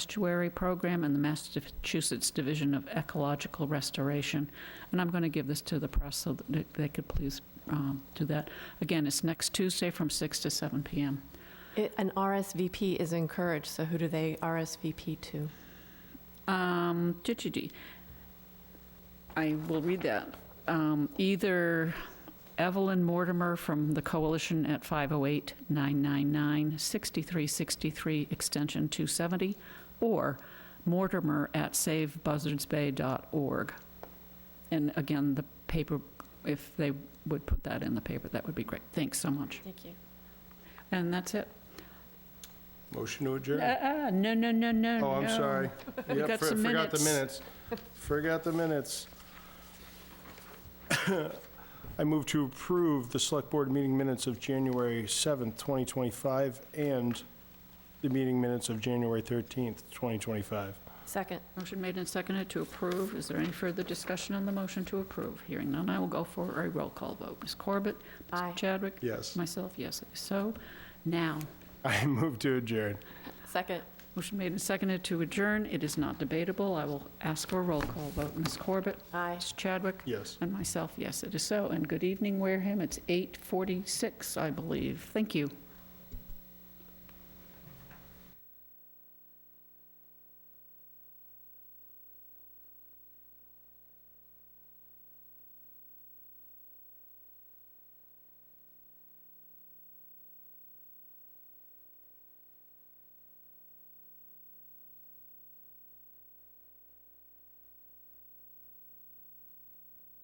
Estuary Program and the Massachusetts Division of Ecological Restoration. And I'm going to give this to the press so that they- they could please um, do that. Again, it's next Tuesday from 6 to 7 PM. It- An RSVP is encouraged, so who do they RSVP to? Um, dee-dee-dee. I will read that. Um, Either Evelyn Mortimer from the Coalition at 508-999-6363, extension 270, or mortimer@savebuzzardsbay.org. And again, the paper, if they would put that in the paper, that would be great. Thanks so much. Thank you. And that's it. Motion to Uh, adjourn? uh, No, no, no, no, no. Oh, I'm sorry. Yep, got for- some Forgot the minutes. minutes. Forgot the minutes. I move to approve the Select Board meeting minutes of January 7th, 2025, and the meeting minutes of January 13th, 2025. Second. Motion made and seconded to approve. Is there any further discussion on the motion to approve? Hearing none, I will go for a roll call vote. Ms. Corbett? Aye. Mr. Chadwick? Yes. Myself, yes, it is so. Now, I move to adjourn. Second. motion made and seconded to adjourn. It is not debatable. I will ask for a roll call vote. Ms. Corbett? Aye. Mr. Chadwick? Yes. And myself, yes, it is so. And good evening, Wareham. It's 8:46, I believe. Thank you.